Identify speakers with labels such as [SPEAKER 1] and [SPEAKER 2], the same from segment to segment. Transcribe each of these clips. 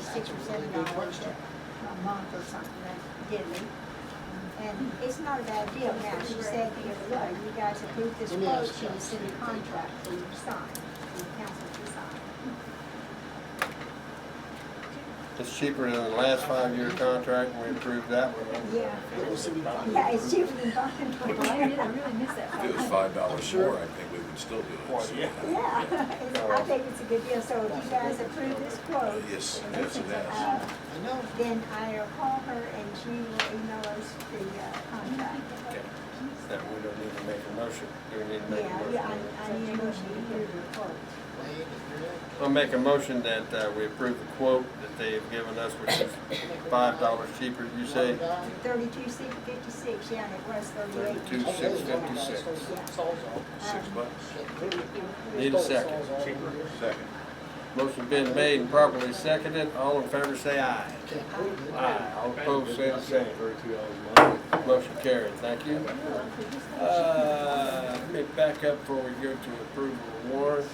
[SPEAKER 1] six or seven dollars a month or something, that's dilly. And it's not a bad deal now, she said the other day, you guys approved this quote, she was in the contract for you to sign, for the council to sign.
[SPEAKER 2] It's cheaper than the last five-year contract, and we approved that one.
[SPEAKER 1] Yeah,
[SPEAKER 3] It was in the-
[SPEAKER 1] yeah, it's cheaper than buying
[SPEAKER 4] Well,
[SPEAKER 1] one.
[SPEAKER 4] I did, I really missed that.
[SPEAKER 5] If it was five dollars more, I think we would still do it.
[SPEAKER 3] Well, yeah.
[SPEAKER 1] Yeah, it's- I think it's a good deal, so if you guys approve this quote.
[SPEAKER 5] Uh, Yes, yes, it
[SPEAKER 1] uh,
[SPEAKER 5] is.
[SPEAKER 3] I know.
[SPEAKER 1] Then I'll call her and she will email us the uh, contract.
[SPEAKER 2] That we don't need to make a motion, do we need to make
[SPEAKER 1] Yeah,
[SPEAKER 2] a
[SPEAKER 1] yeah,
[SPEAKER 2] motion?
[SPEAKER 1] I, I need a motion to approve the quote.
[SPEAKER 3] Wayne, if you're in.
[SPEAKER 2] I'll make a motion that uh, we approve the quote that they've given us, which is five dollars cheaper, you say?
[SPEAKER 1] Thirty-two, six, fifty-six, yeah, and it was thirty-eight.
[SPEAKER 2] 32,656.
[SPEAKER 5] Six
[SPEAKER 1] uh,
[SPEAKER 5] bucks.
[SPEAKER 2] Need a second.
[SPEAKER 5] Second.
[SPEAKER 2] Motion been made and properly seconded, all in favor say aye. Aye, all opposed say the same. Motion carried, thank you. Uh, Let me back up before we go to approval of warrants.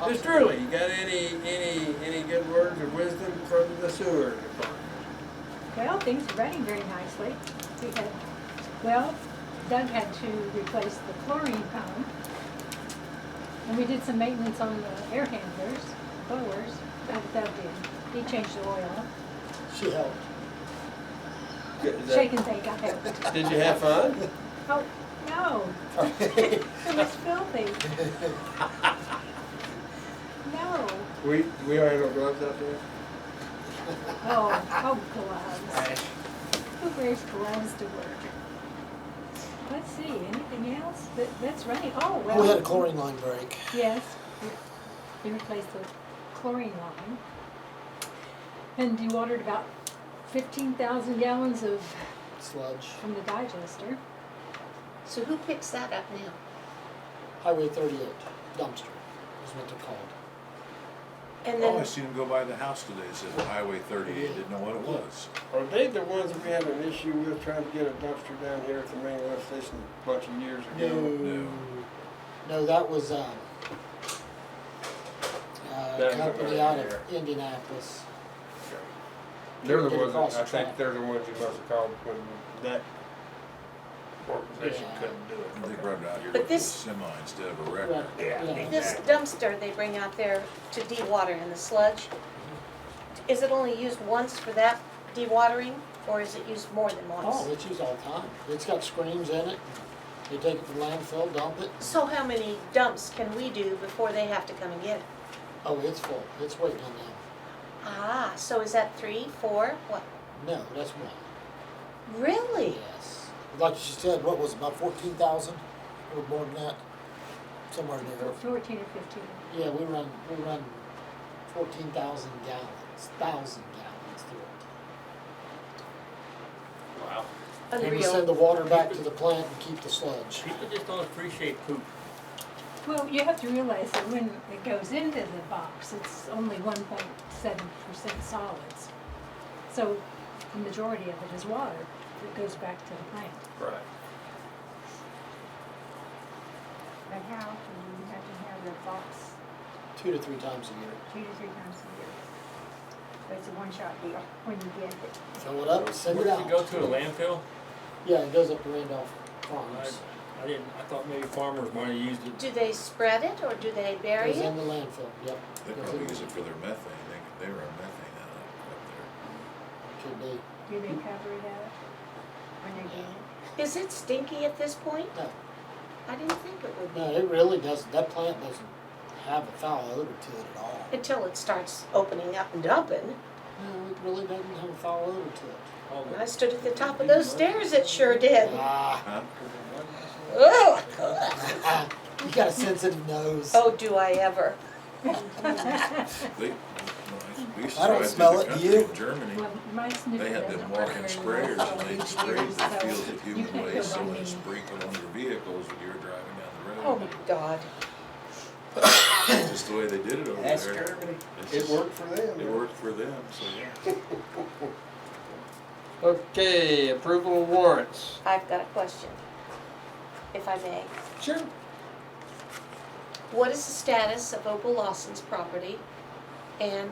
[SPEAKER 2] Mr. Early, you got any, any, any good words of wisdom from the sewer department?
[SPEAKER 4] Well, things are running very nicely. We had, well, Doug had to replace the chlorine pump. And we did some maintenance on the air handlers, blowers, that Doug did. He changed the oil.
[SPEAKER 3] She helped.
[SPEAKER 2] Is that-
[SPEAKER 4] Shake and bake, I helped.
[SPEAKER 2] Did you have fun?
[SPEAKER 4] Oh, no. It was filthy. No.
[SPEAKER 2] We, we already have gloves out there?
[SPEAKER 4] Oh, oh, gloves. Who wears gloves to work? Let's see, anything else that, that's running? Oh, well.
[SPEAKER 3] We had a chlorine line break.
[SPEAKER 4] Yes. We replaced the chlorine line. And dewatered about fifteen thousand gallons of,
[SPEAKER 3] Sludge.
[SPEAKER 4] from the digester.
[SPEAKER 6] So who picks that up now?
[SPEAKER 3] Highway thirty-eight dumpster is what they're called.
[SPEAKER 6] And
[SPEAKER 5] Oh, I
[SPEAKER 6] then,
[SPEAKER 5] seen him go by the house today, It says Highway thirty-eight, didn't know what it was.
[SPEAKER 2] Are they the ones that we had an issue with trying to get a dumpster down here at the main lift station a bunch of years ago?
[SPEAKER 3] No. No, that was, um, uh,
[SPEAKER 2] That's
[SPEAKER 3] company
[SPEAKER 2] about
[SPEAKER 3] out
[SPEAKER 2] there.
[SPEAKER 3] of Indianapolis.
[SPEAKER 2] They're the
[SPEAKER 3] Get
[SPEAKER 2] ones,
[SPEAKER 3] across
[SPEAKER 2] that- I
[SPEAKER 3] the
[SPEAKER 2] think
[SPEAKER 3] track.
[SPEAKER 2] they're the ones you must have called when that organization
[SPEAKER 3] Yeah.
[SPEAKER 2] couldn't do
[SPEAKER 5] And They
[SPEAKER 2] it.
[SPEAKER 5] grabbed out here
[SPEAKER 6] But
[SPEAKER 5] with a
[SPEAKER 6] this-
[SPEAKER 5] semi instead of a
[SPEAKER 3] Right,
[SPEAKER 5] wrecker.
[SPEAKER 3] yeah.
[SPEAKER 6] this dumpster they bring out there to dewater in the sludge, is it only used once for that dewatering, or is it used more than
[SPEAKER 3] Oh,
[SPEAKER 6] once?
[SPEAKER 3] it's used all the time. It's got screens in it. They take it to landfill, dump it.
[SPEAKER 6] So how many dumps can we do before they have to come and get it?
[SPEAKER 3] Oh, it's full. It's waiting on them.
[SPEAKER 6] Ah, so is that three, four, what?
[SPEAKER 3] No, that's one.
[SPEAKER 6] Really?
[SPEAKER 3] Yes. Like she said, what was it, about fourteen thousand or more than that? Somewhere near there.
[SPEAKER 4] Fourteen or fifteen.
[SPEAKER 3] Yeah, we run, we run fourteen thousand gallons, thousand gallons through it.
[SPEAKER 7] Wow.
[SPEAKER 3] And we send
[SPEAKER 6] Unreal.
[SPEAKER 3] the water back to the plant and keep the sludge.
[SPEAKER 7] People just don't appreciate poop.
[SPEAKER 4] Well, you have to realize that when it goes into the box, it's only one point seven percent solids. So the majority of it is water that goes back to the plant.
[SPEAKER 2] Right.
[SPEAKER 1] But how often do you have to have the box
[SPEAKER 3] Two to three times a year.
[SPEAKER 1] two to three times a year? But it's a one-shot deal when you get it.
[SPEAKER 3] Fill it up, send
[SPEAKER 7] Where
[SPEAKER 3] it
[SPEAKER 7] does it go
[SPEAKER 3] out.
[SPEAKER 7] to, a landfill?
[SPEAKER 3] Yeah, it goes up to Randolph
[SPEAKER 7] I,
[SPEAKER 3] Farms.
[SPEAKER 7] I didn't, I thought maybe farmers might have used it.
[SPEAKER 6] Do they spread it, or do they bury
[SPEAKER 3] Goes
[SPEAKER 6] it?
[SPEAKER 3] in the landfill, yep.
[SPEAKER 5] They
[SPEAKER 3] Goes
[SPEAKER 5] probably
[SPEAKER 3] in-
[SPEAKER 5] use it for their methane, they, they run methane out of up there.
[SPEAKER 3] Could be.
[SPEAKER 1] Do they cover it up when they get it?
[SPEAKER 6] Is it stinky at this point?
[SPEAKER 3] No,
[SPEAKER 6] I didn't think it would
[SPEAKER 3] no,
[SPEAKER 6] be,
[SPEAKER 3] it really doesn't, that plant doesn't have a foul odor to it at all.
[SPEAKER 6] until it starts opening up and dumping.
[SPEAKER 3] No, it really doesn't have a foul odor to it.
[SPEAKER 7] All
[SPEAKER 6] When
[SPEAKER 7] the-
[SPEAKER 6] I stood at the top of those stairs, it sure did.
[SPEAKER 3] Ah,
[SPEAKER 5] Huh?
[SPEAKER 6] Ugh.
[SPEAKER 3] ah, you got a sensitive nose.
[SPEAKER 6] Oh, do I ever.
[SPEAKER 5] They, well, I- we used to
[SPEAKER 3] I don't
[SPEAKER 5] drive through
[SPEAKER 3] smell
[SPEAKER 5] the
[SPEAKER 3] it, do
[SPEAKER 5] country
[SPEAKER 3] you?
[SPEAKER 5] in Germany,
[SPEAKER 4] Well, my sniffer
[SPEAKER 5] they had
[SPEAKER 4] doesn't
[SPEAKER 5] them
[SPEAKER 4] work
[SPEAKER 5] walking
[SPEAKER 4] very well, so
[SPEAKER 5] sprayers, and
[SPEAKER 4] it
[SPEAKER 5] they
[SPEAKER 4] is
[SPEAKER 5] sprayed
[SPEAKER 4] used,
[SPEAKER 5] the
[SPEAKER 4] so
[SPEAKER 5] fields of
[SPEAKER 4] you
[SPEAKER 5] human
[SPEAKER 4] can't go
[SPEAKER 5] waste, so
[SPEAKER 4] by
[SPEAKER 5] when
[SPEAKER 4] me.
[SPEAKER 5] it sprinkled on your vehicles when you were driving down the
[SPEAKER 6] Oh,
[SPEAKER 5] road.
[SPEAKER 6] my God.
[SPEAKER 5] That's just the way they did it over
[SPEAKER 2] That's
[SPEAKER 5] there.
[SPEAKER 2] Germany.
[SPEAKER 5] It's
[SPEAKER 2] It
[SPEAKER 5] just-
[SPEAKER 2] worked for them.
[SPEAKER 5] It worked for them, so.
[SPEAKER 2] Okay, approval of warrants.
[SPEAKER 6] I've got a question, if I may.
[SPEAKER 2] Sure.
[SPEAKER 6] What is the status of Opal Lawson's property? And